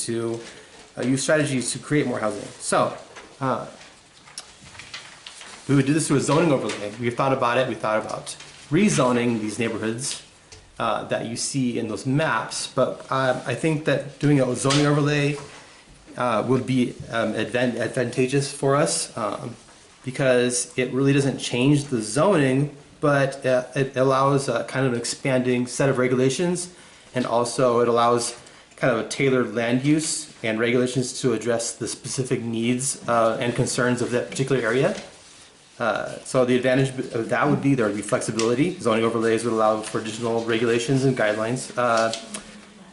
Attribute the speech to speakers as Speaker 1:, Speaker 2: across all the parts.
Speaker 1: to uh, use strategies to create more housing. So, uh, we would do this through a zoning overlay. We've thought about it. We thought about rezoning these neighborhoods uh, that you see in those maps. But um, I think that doing a zoning overlay uh, would be um, advan- advantageous for us um, because it really doesn't change the zoning, but uh, it allows a kind of an expanding set of regulations, and also it allows kind of a tailored land use and regulations to address the specific needs uh, and concerns of that particular area. Uh, So the advantage of that would be there would be flexibility. Zoning overlays would allow for additional regulations and guidelines. uh,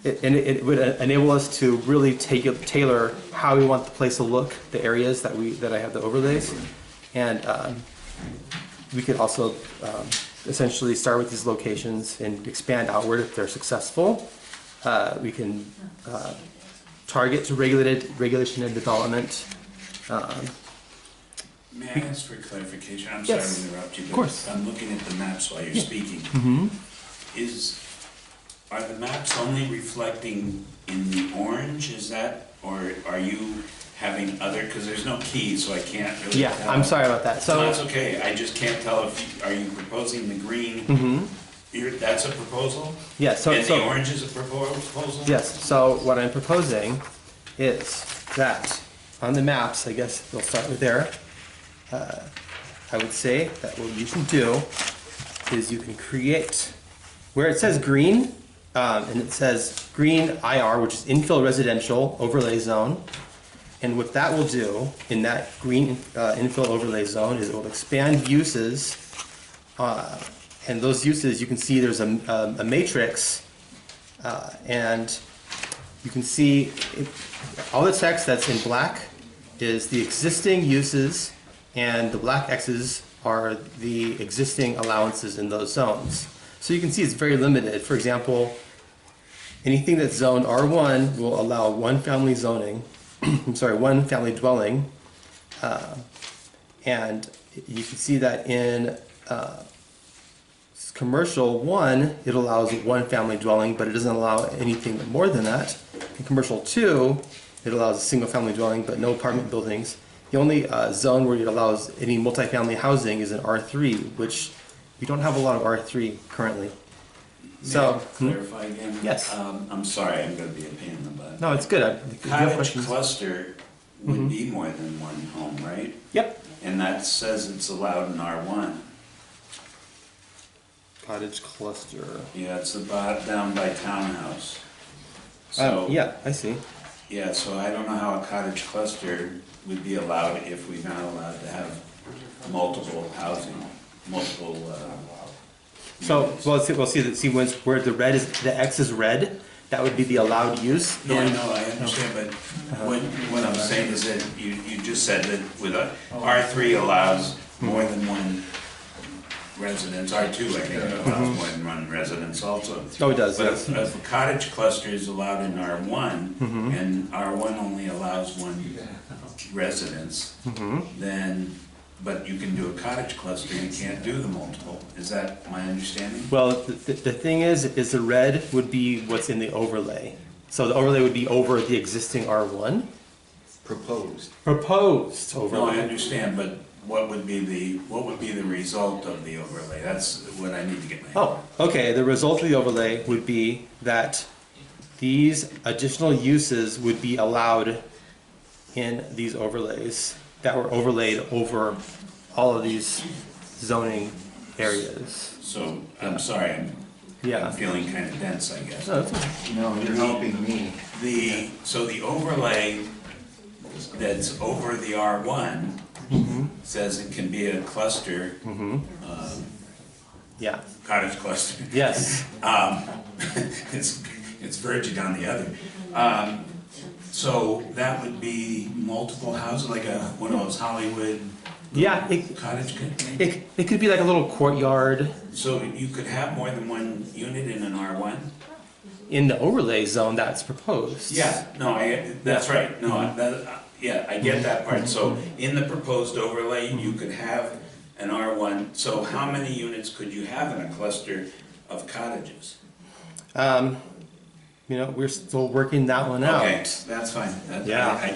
Speaker 1: it- And it it would uh, enable us to really take, it- tailor how we want the place to look, the areas that we, that I have the overlays. And um, we could also um, essentially start with these locations and expand outward if they're successful. Uh, We can uh, target to regulated, regulation and development.
Speaker 2: May I ask for clarification? I'm sorry
Speaker 1: Yes.
Speaker 2: to interrupt you,
Speaker 1: Of course. Mm-hmm.
Speaker 2: but I'm looking at the maps while you're speaking. Is, are the maps only reflecting in the orange, is that, or are you having other, because there's no keys, so I can't really
Speaker 1: Yeah,
Speaker 2: tell.
Speaker 1: I'm sorry about that. So.
Speaker 2: No, That's okay, I just can't tell if, you- are you proposing the green? You're, that's a proposal?
Speaker 1: Mm-hmm. Yeah, so-
Speaker 2: And
Speaker 1: so-
Speaker 2: the orange is a propo- proposal?
Speaker 1: Yes, so what I'm proposing is that on the maps, I guess we'll start with there. uh, I would say that what you can do is you can create, where it says green, um, and it says green IR, which is infill residential overlay zone. And what that will do in that green uh, infill overlay zone is it will expand uses. uh, And those uses, you can see there's a um, a matrix uh, and you can see it- all the text that's in black is the existing uses, and the black X's are the existing allowances in those zones. So you can see it's very limited. For example, anything that's zoned R1 will allow one family zoning, I'm sorry, one family dwelling. Uh, And you can see that in uh, it's commercial one, it allows one family dwelling, but it doesn't allow anything more than that. In commercial two, it allows a single family dwelling, but no apartment buildings. The only uh, zone where it allows any multifamily housing is in R3, which we don't have a lot of R3 currently.
Speaker 2: May I
Speaker 1: So, hmm?
Speaker 2: clarify again?
Speaker 1: Yes.
Speaker 2: Um, I'm sorry, I'm gonna be a pain in the butt.
Speaker 1: no, it's good. I- if you have questions-
Speaker 2: Cottage
Speaker 1: Mm-hmm.
Speaker 2: cluster would be more than one home, right?
Speaker 1: Yep.
Speaker 2: And that says it's allowed in R1.
Speaker 1: Cottage cluster.
Speaker 2: Yeah, it's about down by townhouse.
Speaker 1: Uh,
Speaker 2: So,
Speaker 1: yeah, I see.
Speaker 2: yeah, so I don't know how a cottage cluster would be allowed if we're not allowed to have multiple housing, multiple, uh.
Speaker 1: So,
Speaker 2: units.
Speaker 1: well, see, well, see, the- see, once where the red is, the X is red, that would be the allowed use.
Speaker 2: No, I
Speaker 1: in-
Speaker 2: know, I understand, but what, what I'm saying is that you, you just said that with a, R three allows more than one residence, R two, I think, allows more than one residence also.
Speaker 1: Oh, it does,
Speaker 2: But
Speaker 1: yes.
Speaker 2: if- if a cottage cluster is allowed in R one, and R one only allows one residence, then, but you can do a cottage cluster, you can't do the multiple, is that my understanding?
Speaker 1: Well, the, the the thing is, is the red would be what's in the overlay. So the overlay would be over the existing R1
Speaker 3: proposed.
Speaker 1: proposed
Speaker 2: No, I
Speaker 1: overlay.
Speaker 2: understand, but what would be the, what would be the result of the overlay? That's what I need to get my.
Speaker 1: Oh, okay, the result of the overlay would be that these additional uses would be allowed in these overlays that were overlaid over all of these zoning areas.
Speaker 2: So, I'm sorry, I'm I'm
Speaker 1: Yeah. Mm-hmm.
Speaker 2: feeling kind of dense, I guess.
Speaker 1: No, that's-
Speaker 3: No, you're helping me.
Speaker 2: The, so the overlay that's over the R1
Speaker 1: Mm-hmm.
Speaker 2: says it can be a cluster,
Speaker 1: Yeah,
Speaker 2: cottage cluster.
Speaker 1: yes,
Speaker 2: It's, it's verging on the other. Um, So that would be multiple houses, like a, one of those Hollywood
Speaker 1: yeah, it,
Speaker 2: cottage. con-
Speaker 1: it, it could be like a little courtyard
Speaker 2: So you could have more than one unit in an R1?
Speaker 1: in the overlay zone that's proposed.
Speaker 2: Yeah, no, I, that's right, no, I- that, uh, yeah, I get that part, so in the proposed overlay, you could have an R one, so how many units could you have in a cluster of cottages?
Speaker 1: Um,
Speaker 2: you know, we're still working that one out.
Speaker 1: Okay, that's fine. That- I-
Speaker 2: Yeah.
Speaker 1: I